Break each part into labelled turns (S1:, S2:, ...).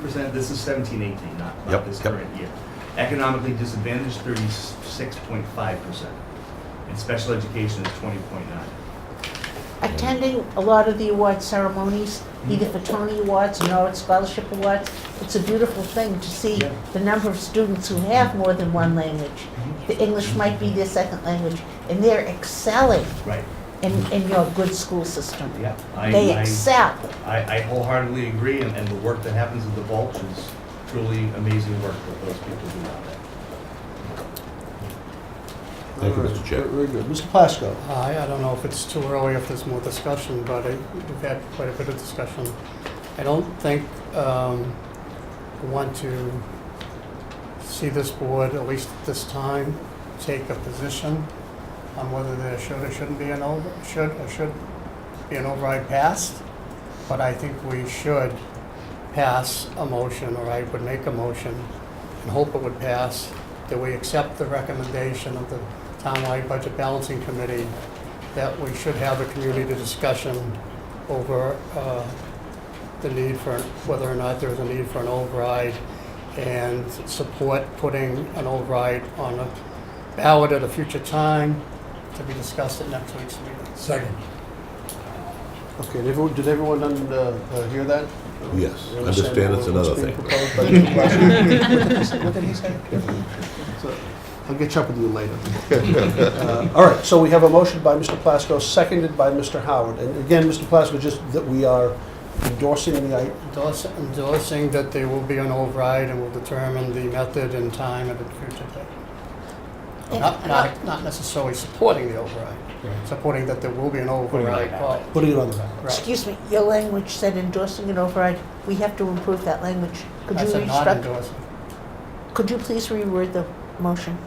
S1: percent, this is seventeen eighteen, not,
S2: Yep,
S1: not this
S2: yep.
S1: current year. Economically disadvantaged, thirty-six point five percent. And special education is twenty point nine.
S3: attending a lot of the award ceremonies, either for Tony Awards or Norwood Scholarship Awards, it's a beautiful thing to see
S1: Yeah.
S3: the number of students who have more than one language.
S2: Mm-hmm.
S3: The English might be their second language, and they're excelling
S1: Right,
S3: in, in your good school system.
S1: yeah. I-
S3: They
S1: I-
S3: excel.
S1: I, I wholeheartedly agree, and, and the work that happens at the Vulch is truly amazing work that those people do out there.
S2: Thank you, Mr. Chair.
S4: Uh, Very good. Mr. Plasko?
S5: Hi, Uh, I don't know if it's too early, if there's more discussion, but I- we've had quite a bit of discussion. I don't think um, I want to see this board, at least at this time, take a position on whether there should or shouldn't be an over, should or should be an override passed. But I think we should pass a motion, or I would make a motion, and hope it would pass, that we accept the recommendation of the Townwide Budget Balancing Committee that we should have a community discussion over uh, the need for, whether or not there's a need for an override and support putting an override on a ballot at a future time to be discussed at next week's meeting.
S6: Second.
S4: Okay, did everyone- did everyone un- uh, uh, hear that?
S2: Yes,
S4: They
S2: understand it's
S4: what's
S2: another
S4: being
S2: thing.
S4: proposed by the question? What did he say? What did he say? So, I'll get you up with you later. Uh, All right, so we have a motion by Mr. Plasko, seconded by Mr. Howard. And again, Mr. Plasko, just that we are endorsing the, i-
S5: Endorse- Endorsing that there will be an override and will determine the method and time at a future date.
S3: uh,
S5: Not, not, not necessarily supporting the override, supporting that there will be an override call.
S4: putting it on the ballot.
S5: Right.
S3: Excuse me, your language said endorsing an override. We have to improve that language. Could you
S5: That's a
S3: restruct,
S5: non-endorsement.
S3: could you please reword the motion?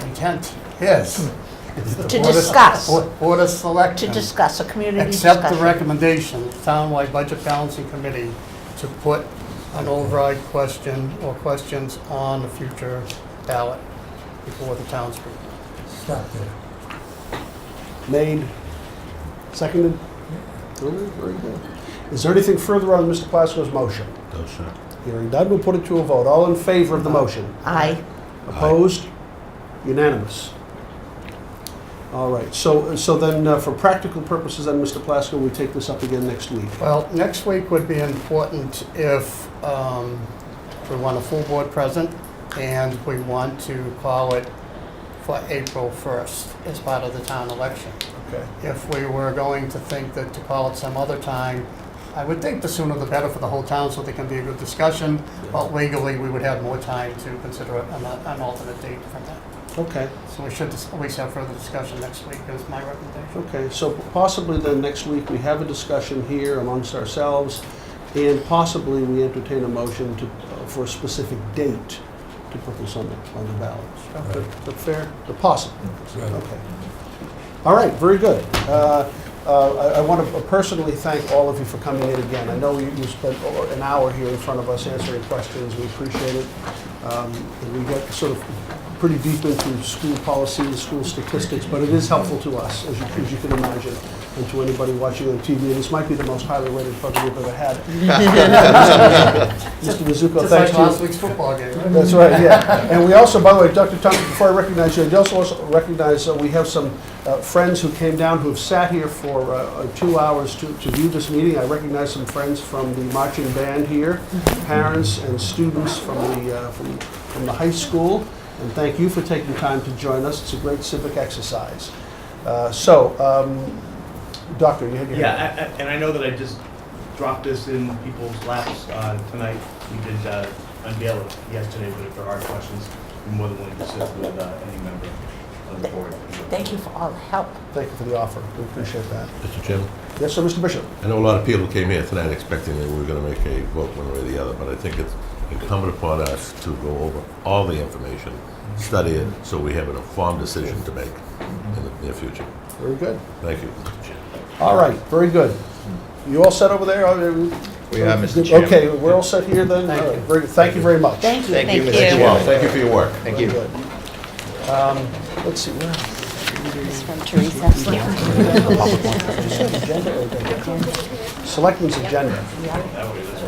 S5: Intent is.
S3: To discuss.
S5: Board of
S3: To
S5: Selectmen.
S3: discuss, a community discussion.
S5: Um, Accept the recommendation, of the Townwide Budget Balancing Committee, to put an override question or questions on the future ballot before the townspeople.
S6: Stop there.
S4: Made, seconded? Very very good. Is there anything further on Mr. Plasko's motion?
S2: No, sir.
S4: Hearing none, we'll put it to a vote. All in favor of the motion?
S3: Aye.
S4: Opposed? Unanimous. All right, so, so then, uh, for practical purposes, then, Mr. Plasko, we take this up again next week.
S5: Well, next week would be important if um, we want a full board present and we want to call it for April 1st as part of the town election.
S4: Okay.
S5: if we were going to think that to call it some other time, I would think the sooner the better for the whole town, so there can be a good discussion. But legally, we would have more time to consider an an alternate date from that.
S4: Okay,
S5: So we should dis- at least have further discussion next week, is my recommendation.
S4: okay, so possibly then, next week, we have a discussion here amongst ourselves, and possibly we entertain a motion to, uh, for a specific date to put this on the, on the ballot. Is that- is that fair? Or Possible.
S6: Right.
S4: Okay. All right, very good. Uh, uh, I want to personally thank all of you for coming in again. I know you you spent o- an hour here in front of us answering questions, we appreciate it. Um, and We got sort of pretty deep into school policy and school statistics, but it is helpful to us, as you as you can imagine, and to anybody watching on TV. And this might be the most highly rated program we've ever had. Mr. Mizuko,
S5: Just like
S4: thank you.
S5: last week's football game, right?
S4: That's right, yeah. And we also, by the way, Dr. Thompson, before I recognize you, I just also recognize uh, we have some uh, friends who came down who have sat here for uh, uh, two hours to to view this meeting. I recognize some friends from the marching band here, parents and students from the, uh, from from the high school. And thank you for taking time to join us. It's a great civic exercise. Uh, So, um, Doctor, you had your hand.
S1: Yeah, a- a- and I know that I just dropped this in people's laps uh, tonight. We did uh, unveil it yesterday, but if there are questions, I'm more than willing to sit with uh, any member of the board.
S3: Thank you for all the help.
S4: Thank you for the offer. We appreciate that.
S2: Mr. Chairman,
S4: Yes, sir, Mr. Bishop?
S2: I know a lot of people came here tonight expecting that we were going to make a vote one way or the other, but I think it's incumbent upon us to go over all the information, study it, so we have an informed decision to make in the near future.
S4: Very good.
S2: Thank you, Mr. Chairman.
S4: All right, very good. You all set over there? Are you-
S7: We are, Mr. Chairman.
S4: Okay, we're all set here then?
S5: Thank
S4: All right,
S5: you.
S4: very- Thank you very much.
S3: Thank you.
S7: Thank you, Mr.
S2: Mr.
S7: Yeah.
S2: Wall, thank you for your work.
S7: Thank
S4: Very
S7: you.
S4: good. Um, Let's see, where?
S8: from Teresa.
S4: Agenda or agenda? Selectmen's agenda.
S1: That way, this